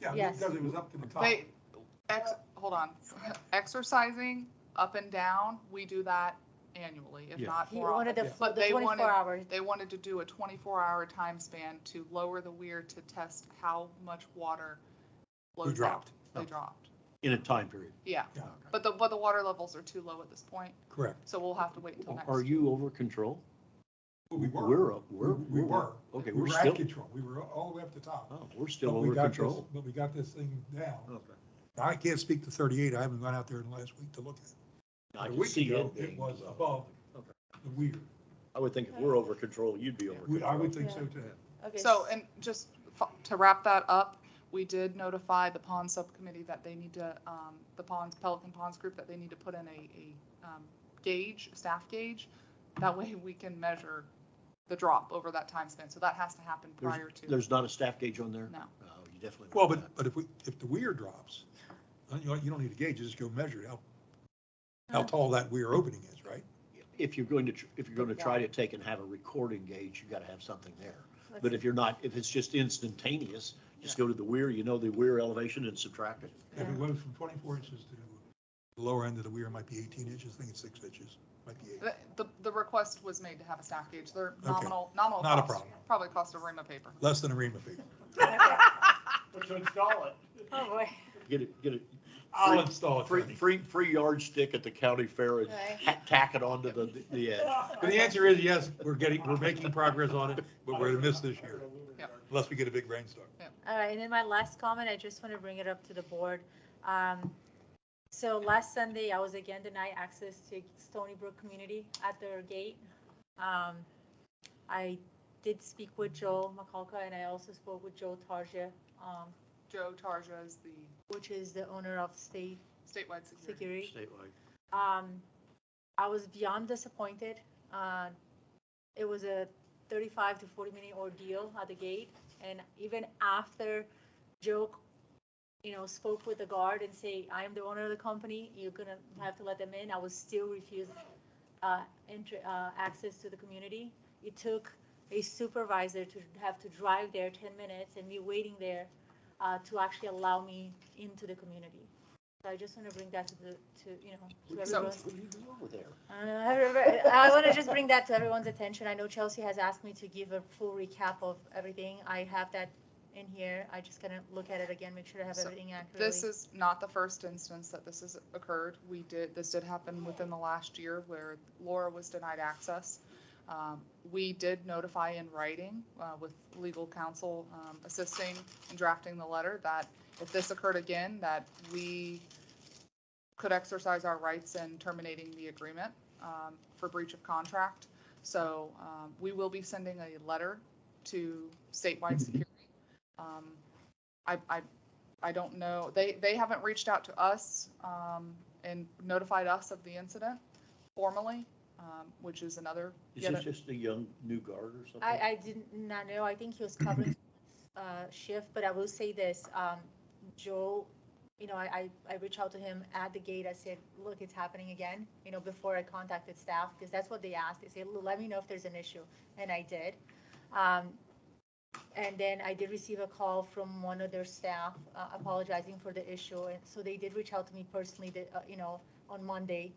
Yeah, Yes. because it was up to the top. They, ex, hold on, exercising up and down, we do that annually, if Yeah. not He more often. wanted the, But the they wanted- twenty-four hours. They wanted to do a twenty-four hour time span to lower the weir to test how much water We flows out. dropped Oh. They dropped, in a time period. yeah, Yeah, but the, but the water levels are too low at this point, correct. so we'll have to wait until next. Are you over control? But We were, We're, up- we're. We- we were. Okay, we we're were at still, control. We were all the way up to top. oh, we're still But we over got this- control. But we got this thing down. I can't speak to thirty-eight. I haven't gone out there in the last week to look at it. I A can week see ago, it. being was above. above Okay. the weir. I would think if we're over control, you'd be over We- I control. would think so too. Okay, So, and just fo- to wrap that up, we did notify the pond subcommittee that they need to, um, the ponds, Pelican Ponds Group, that they need to put in a, a, um, gauge, staff gauge. That way we can measure the drop over that time span. So that has to happen prior to, There's not a staff gauge on there? no. Oh, you definitely. Well, want but, but if we, if the weir drops, then you, you don't need a gauge, you just go measure it, how, how tall that weir opening is, right? that. If you're going to, tr- if you're going to try to take and have a recording gauge, you got to have something there. let's But see. if you're not, if it's just instantaneous, just go to the weir, you know the weir elevation and subtract it. If it goes from twenty-four inches to the lower end of the weir, might be eighteen inches, I think it's six inches, might be eight. The, the, the request was made to have a staff gauge. They're Okay. nominal, nominal Not a cost, problem. probably cost a ream of paper. Less than a ream of paper. But to install it. Oh, boy. Get it, get it, I'll install it, free, Tony. free, free yardstick at the county fair and Right. ha- tack it onto the, the edge. But the answer is yes, we're getting, we're making progress on it, but we're gonna miss this year, Yep. unless we get a big rainstorm. All right, and then my last comment, I just want to bring it up to the board. Um, So last Sunday, I was again denied access to Stony Brook community at their gate. Um, I did speak with Joel McCulca, and I also spoke with Joe Tarja, um, Joe Tarja is the which is the owner of State statewide security. Security. Statewide. Um, I was beyond disappointed. Uh, it was a 35 to 40 minute ordeal at the gate, and even after Joe, you know, spoke with the guard and say, "I am the owner of the company. You're gonna have to let them in," I was still refused uh, entry, uh, access to the community. It took a supervisor to have to drive there 10 minutes and me waiting there uh, to actually allow me into the community. So I just want to bring that to the, to, you know, to So- everyone's What do you do over there? uh, everybody- I want to just bring that to everyone's attention. I know Chelsea has asked me to give a full recap of everything. I have that in here. I just gotta look at it again, make sure I have So, everything This accurately. is not the first instance that this has occurred. We did, this did happen within the last year where Laura was denied access. Um, We did notify in writing uh, with legal counsel um, assisting in drafting the letter that if this occurred again, that we could exercise our rights in terminating the agreement um, for breach of contract. So um, we will be sending a letter to statewide security. Um, I, I I don't know, they, they haven't reached out to us um, and notified us of the incident formally, um, which is another. Is yet this a- just a young new guard or something? I, I did not know. I think he was covering uh, shift, but I will say this, um, Joe, you know, I, I, I reached out to him at the gate. I said, look, it's happening again, you know, before I contacted staff, because that's what they asked. They said, "Look, let me know if there's an issue. And I did. Um, And then I did receive a call from one of their staff uh, apologizing for the issue. And so they did reach out to me personally, that, uh, you know, on Monday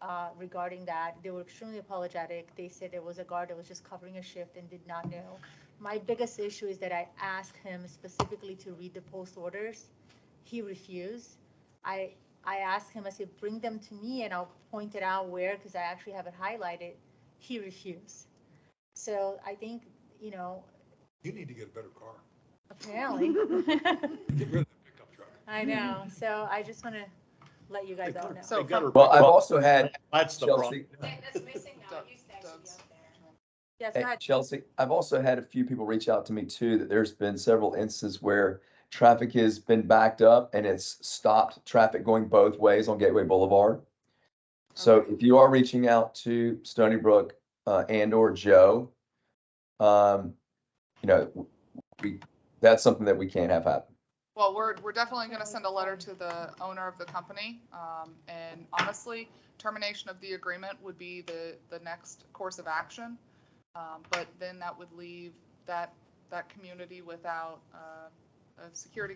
uh, regarding that. They were extremely apologetic. They said there was a guard that was just covering a shift and did not know. My biggest issue is that I asked him specifically to read the post orders. He refused. I, I asked him, I said, bring them to me and I'll point it out where, because I actually have it highlighted. He refused. So I think, you know, You need to get a better car. Apparently. Get rid of that pickup truck. I know. So I just want to let you guys all know. So They got her- Well, I've also had, That's the problem. Chelsea, That's missing now, Doug- it used to actually be Doug's- up there. Yes, go hey, ahead. eh, Chelsea, I've also had a few people reach out to me too, that there's been several instances where traffic has been backed up and it's stopped traffic going both ways on Gateway Boulevard. So Okay. if you are reaching out to Stony Brook, uh, and or Joe, um, you know, w- we, that's something that we can't have happen. Well, we're, we're definitely going to send a letter to the owner of the company. um, And honestly, termination of the agreement would be the, the next course of action. Um, But then that would leave that, that community without uh, a security